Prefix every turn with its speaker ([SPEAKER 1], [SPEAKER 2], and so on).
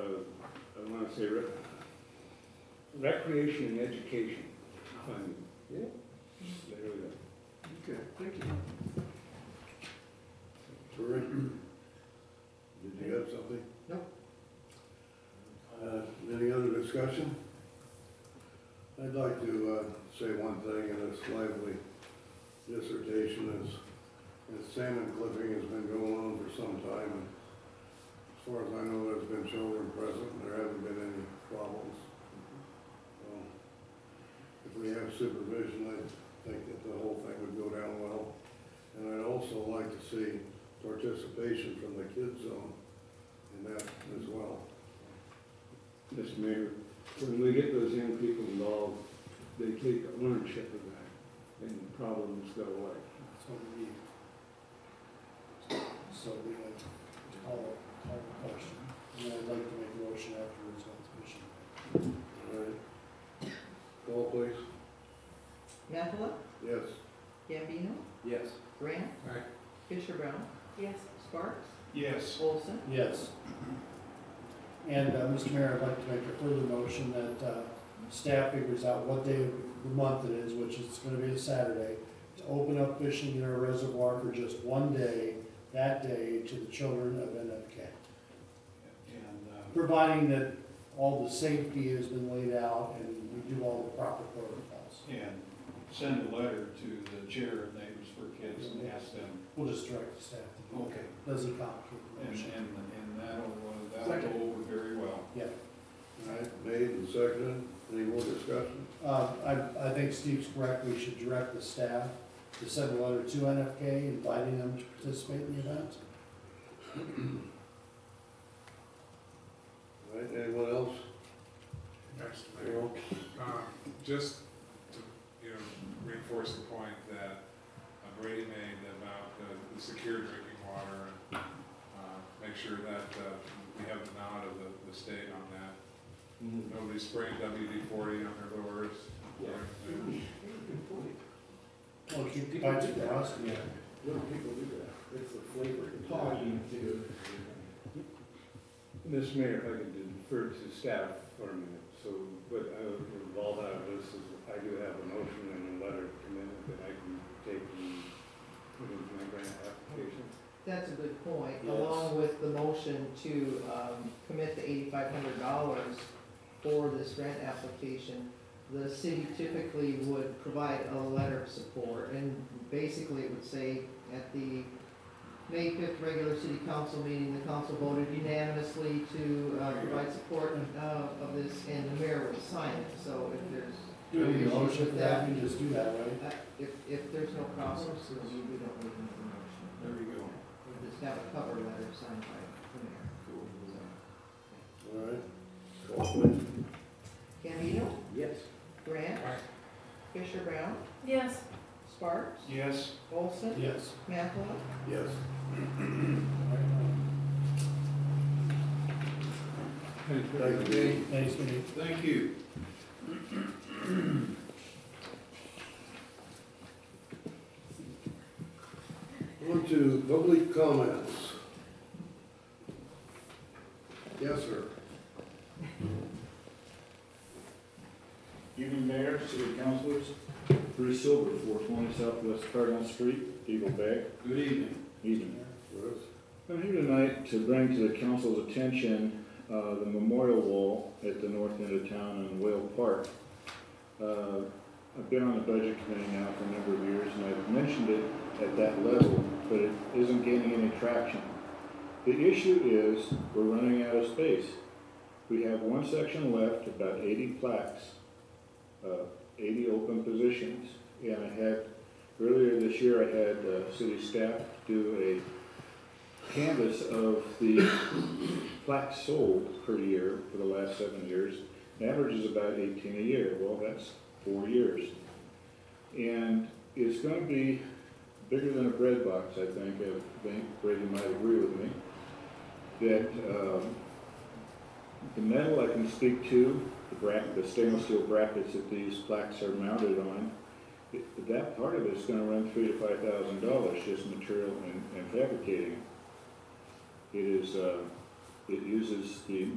[SPEAKER 1] uh, I wanna say rec- recreation and education funding.
[SPEAKER 2] Yeah.
[SPEAKER 1] There we go.
[SPEAKER 2] Okay, thank you.
[SPEAKER 3] Terry, did you have something?
[SPEAKER 2] No.
[SPEAKER 3] Uh, Any other discussion? I'd like to uh, say one thing in this lively dissertation is, is salmon clipping has been going on for some time. and As far as I know, there's been children present and there haven't been any problems. So, If we have supervision, I think that the whole thing would go down well. And I'd also like to see participation from the kids zone in that as well.
[SPEAKER 1] Mr. Mayor, when we get those young people involved, they take ownership of that and problems go away.
[SPEAKER 4] That's what we need. So we like to call, call the question, and I'd like to make a motion afterwards on the commission.
[SPEAKER 3] All right. Call please.
[SPEAKER 5] Methla,
[SPEAKER 3] Yes.
[SPEAKER 5] Gambino,
[SPEAKER 2] Yes.
[SPEAKER 5] Grant.
[SPEAKER 2] Aye.
[SPEAKER 5] Fisher Brown.
[SPEAKER 6] Yes.
[SPEAKER 5] Sparks.
[SPEAKER 2] Yes.
[SPEAKER 5] Olson.
[SPEAKER 4] Yes. And, uh, Mr. Mayor, I'd like to make a further motion that, uh, staff figures out what day of the month it is, which is gonna be a Saturday, to open up fishing in our reservoir for just one day, that day, to the children of NFK.
[SPEAKER 2] And, uh,
[SPEAKER 4] Providing that all the safety has been laid out and we do all the proper protocols.
[SPEAKER 2] and send a letter to the chair of Neighbors for Kids and ask them,
[SPEAKER 4] We'll just direct the staff to do it.
[SPEAKER 2] okay,
[SPEAKER 4] Doesn't complicate the
[SPEAKER 2] and, and,
[SPEAKER 4] motion.
[SPEAKER 2] and that'll, uh, that'll go over very well.
[SPEAKER 3] All right, made and seconded. Any more discussion?
[SPEAKER 4] Uh, I, I think Steve's correct, we should direct the staff to send a letter to NFK inviting them to participate in the event.
[SPEAKER 3] All right, anyone else?
[SPEAKER 7] Thanks, Mayor.
[SPEAKER 3] Carol?
[SPEAKER 7] Um, Just to, you know, reinforce the point that uh, Brady made about the, the secure drinking water and uh, make sure that uh, we have the nod of the, the state on that. Nobody spraying WD forty on their lures.
[SPEAKER 3] Mm-hmm.
[SPEAKER 2] Good point.
[SPEAKER 4] Well, keep the bites crossed.
[SPEAKER 2] Yeah. Little people do that, it's the flavor.
[SPEAKER 1] Mr. Mayor, if I could defer to staff for a minute, so, but I would involve out of this is, I do have a motion and a letter commitment that I can take and put into my grant application.
[SPEAKER 5] That's a good point,
[SPEAKER 4] Yes.
[SPEAKER 5] along with the motion to um, commit the eighty-five hundred dollars for this grant application. The city typically would provide a letter of support, and basically it would say, at the May fifth regular city council meeting, the council voted unanimously to uh, provide support uh, of this, and the mayor would sign it, so if there's,
[SPEAKER 4] Do we need a motion for that, we just do that, right?
[SPEAKER 5] uh, if, if there's no problems, we don't need another motion.
[SPEAKER 2] There you go.
[SPEAKER 5] We'll just have a cover letter signed by the mayor.
[SPEAKER 3] All right. Call please.
[SPEAKER 5] Gambino,
[SPEAKER 2] Yes.
[SPEAKER 5] Grant. Fisher Brown,
[SPEAKER 6] Yes.
[SPEAKER 5] Sparks,
[SPEAKER 2] Yes.
[SPEAKER 5] Olson,
[SPEAKER 4] Yes.
[SPEAKER 5] Mathelah.
[SPEAKER 3] Yes. Thank you, Dean.
[SPEAKER 4] Thanks, Steve.
[SPEAKER 2] Thank you.
[SPEAKER 3] On to public comments. Yes, sir.
[SPEAKER 8] Evening Mayor, City Councilors. Bruce Silver, four twenty Southwest Cardoon Street, Eagle Bay.
[SPEAKER 2] Good evening.
[SPEAKER 8] Evening.
[SPEAKER 3] Yes.
[SPEAKER 8] I'm here tonight to bring to the council's attention uh, the memorial wall at the north end of town in Whale Park. Uh, I've been on the budget committee now for a number of years, and I've mentioned it at that level, but it isn't gaining any traction. The issue is, we're running out of space. We have one section left, about 80 plaques, uh, 80 open positions, and I had, earlier this year, I had uh, city staff do a canvas of the plaques sold per year for the last seven years. The average is about 18 a year. Well, that's four years. And it's going to be bigger than a bread box, I think. I think Brady might agree with me. That um, the metal I can speak to, the, bra- the stainless steel brackets that these plaques are mounted on, it, that part of it is going to run three to five thousand dollars just material and, and fabricating. It is, uh, it uses the